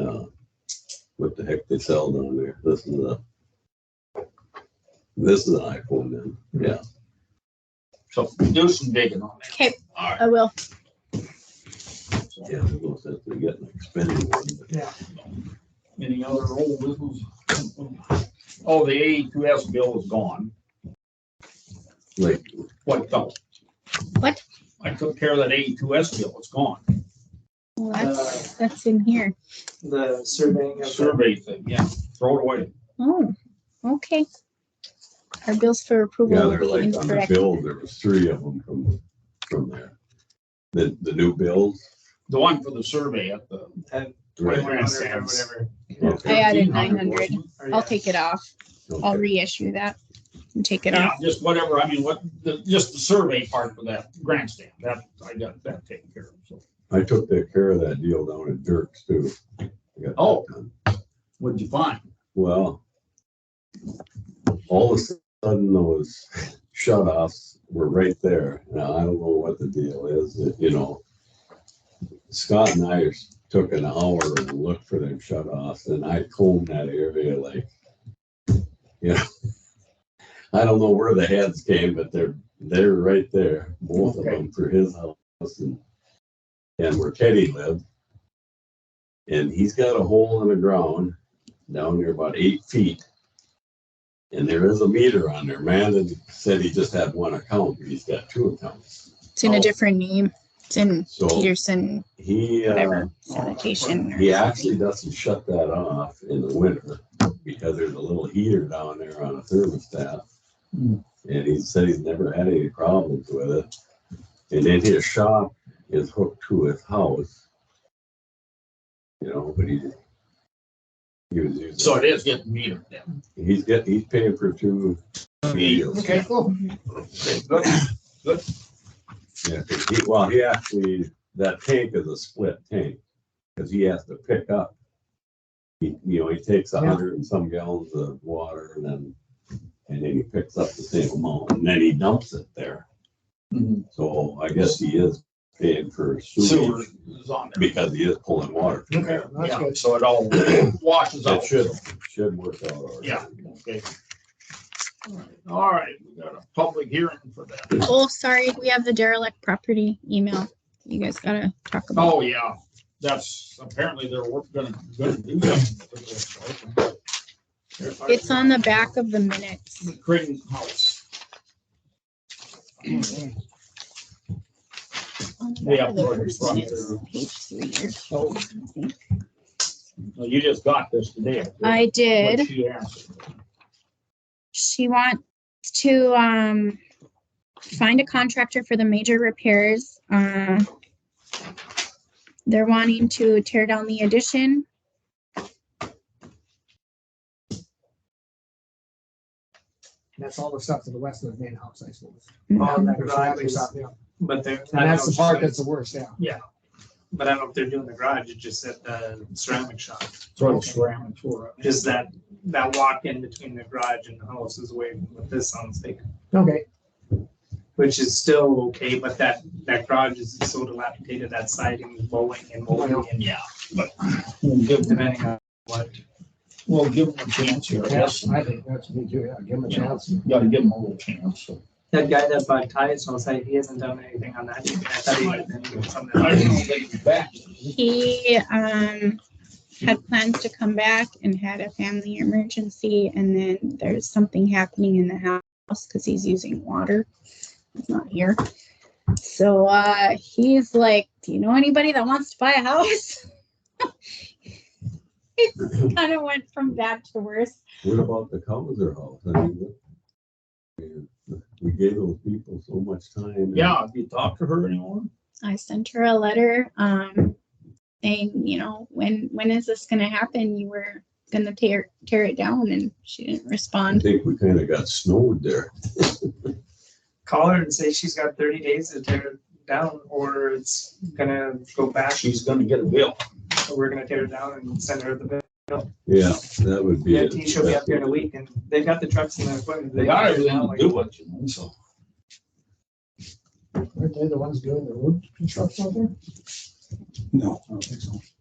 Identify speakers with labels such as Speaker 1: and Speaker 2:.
Speaker 1: uh, what the heck they sell down there. This is a, this is an iPhone then, yeah.
Speaker 2: So do some digging on that.
Speaker 3: Okay,
Speaker 2: All right.
Speaker 3: I will.
Speaker 1: Yeah, there's no sense in getting an expensive one. but-
Speaker 2: Any other old business? Oh, the AE2S bill is gone.
Speaker 1: Like,
Speaker 2: What, though?
Speaker 3: What?
Speaker 2: I took care of that AE2S bill. It's gone.
Speaker 3: Well,
Speaker 4: Uh,
Speaker 3: Oh, that's, that's in here.
Speaker 4: the surveying of the
Speaker 2: Survey thing, yeah. Throw it away.
Speaker 3: Oh, okay. Our bills for approval
Speaker 1: yeah,
Speaker 3: will
Speaker 1: they're
Speaker 3: be
Speaker 1: like on the
Speaker 3: incorrect.
Speaker 1: bill, there was three of them from, from there. The, the new bills.
Speaker 2: The one for the survey at the.
Speaker 1: right?
Speaker 4: twenty-one hundred or whatever.
Speaker 1: Okay,
Speaker 3: I added
Speaker 2: 1300,
Speaker 3: 900.
Speaker 2: wasn't
Speaker 4: Or
Speaker 3: I'll
Speaker 4: yeah.
Speaker 3: take it off. I'll
Speaker 1: okay.
Speaker 3: reissue that and take
Speaker 2: it?
Speaker 3: it
Speaker 2: Yeah,
Speaker 3: off.
Speaker 2: just whatever. I mean, what, the- just the survey part for that grandstand. That, I got that taken care of. So
Speaker 1: I took that care of that deal down at Dirk's too. I got that
Speaker 2: Oh.
Speaker 1: done.
Speaker 2: what'd you find?
Speaker 1: Well, all of a sudden those shut offs were right there. Now, I don't know what the deal is, you know. Scott and I took an hour and looked for them shut offs and I combed that area like, you know. I don't know where the heads came, but they're, they're right there, both of them for his house and, and where Teddy lived. And he's got a hole in the ground down there about eight feet. And there is a meter on there. Brandon said he just had one account, but he's got two accounts.
Speaker 3: It's in
Speaker 1: Oh.
Speaker 3: a different name. It's in
Speaker 1: So
Speaker 3: Peterson,
Speaker 1: he, uh,
Speaker 3: whatever, sanitation. or
Speaker 1: he
Speaker 3: something.
Speaker 1: actually doesn't shut that off in the winter because there's a little heater down there on a thermostat.
Speaker 2: Hmm.
Speaker 1: And he said he's never had any problems with it. And then his shop is hooked to his house. You know, but he, he was using.
Speaker 2: So it is getting metered then.
Speaker 1: He's getting, he's paying for two meals.
Speaker 2: Okay, cool. Okay, good.
Speaker 1: Yeah, 'cause he, well, he actually, that tank is a split tank, because he has to pick up. He, you know, he takes a hundred and some gallons of water and then, and then he picks up the same amount and then he dumps it there.
Speaker 2: Mhm.
Speaker 1: So I guess he is paying for
Speaker 2: Sewer
Speaker 1: sewage
Speaker 2: is on there.
Speaker 1: because he is pulling water. from
Speaker 2: Okay,
Speaker 1: there.
Speaker 2: yeah, so it all washes
Speaker 1: It
Speaker 2: out.
Speaker 1: should, should work out. all right.
Speaker 2: Yeah. Okay. All right, we got a public hearing for that.
Speaker 3: Oh, sorry, we have the derelict property email. You guys gotta talk about.
Speaker 2: Oh, yeah, that's, apparently they're work, gonna, gonna do that.
Speaker 3: It's on the back of the minutes.
Speaker 2: Creighton House.
Speaker 3: On the
Speaker 2: Yeah,
Speaker 3: back of the
Speaker 2: right in
Speaker 3: first
Speaker 2: front
Speaker 3: minutes,
Speaker 2: there.
Speaker 3: Page three. or
Speaker 2: Oh.
Speaker 3: something.
Speaker 2: Well, You just got this today.
Speaker 3: I did.
Speaker 2: What she asked.
Speaker 3: She wants to, um, find a contractor for the major repairs. Uh, They're wanting to tear down the addition.
Speaker 5: That's all the stuff to the west of the main house, I suppose.
Speaker 4: All that
Speaker 5: Or
Speaker 4: garage
Speaker 5: something,
Speaker 4: is,
Speaker 5: something, yeah.
Speaker 4: but they're.
Speaker 5: And that's the part that's the worst, yeah.
Speaker 4: But I don't know if they're doing the garage, it's just at the ceramic shop.
Speaker 2: Sort of scram and tore up.
Speaker 4: Just that, that walk in between the garage and the house is way, what this sounds like,
Speaker 5: Okay,
Speaker 4: which is still okay, but that, that garage is so dilapidated, that siding is bowing and bowing and
Speaker 2: Yeah, but we'll give them,
Speaker 4: depending on what.
Speaker 2: we'll give them a chance here, I guess.
Speaker 5: yes, I think that's me too, yeah, give him a chance.
Speaker 2: Gotta give them a little chance, so.
Speaker 4: That guy that bought ties on site, he hasn't done anything on that. either. I thought he had been doing something.
Speaker 2: I don't know if they can be back.
Speaker 3: He, um, had plans to come back and had a family emergency and then there's something happening in the house because he's using water. He's not here. So, uh, he's like, do you know anybody that wants to buy a house? It's kind of went from bad to worse.
Speaker 1: What about the Cowser house? I mean, what- we- we gave those people so much time.
Speaker 2: Yeah, have you talked to her anymore?
Speaker 3: I sent her a letter, um, saying, you know, when, when is this gonna happen? You were gonna tear, tear it down and she didn't
Speaker 1: I
Speaker 3: respond.
Speaker 1: think we kind of got snowed there.
Speaker 4: Call her and say she's got thirty days to tear it down, or it's gonna go back,
Speaker 2: She's gonna get a bill.
Speaker 4: or we're gonna tear it down and send her the bill.
Speaker 1: Yeah, that would be.
Speaker 4: Yeah,
Speaker 1: it.
Speaker 4: she'll be up here in a week, and they've got the trucks and the equipment.
Speaker 2: They got everything to do it, you know, so.
Speaker 5: Aren't they the ones doing the road construction out there?
Speaker 2: No. I don't think so.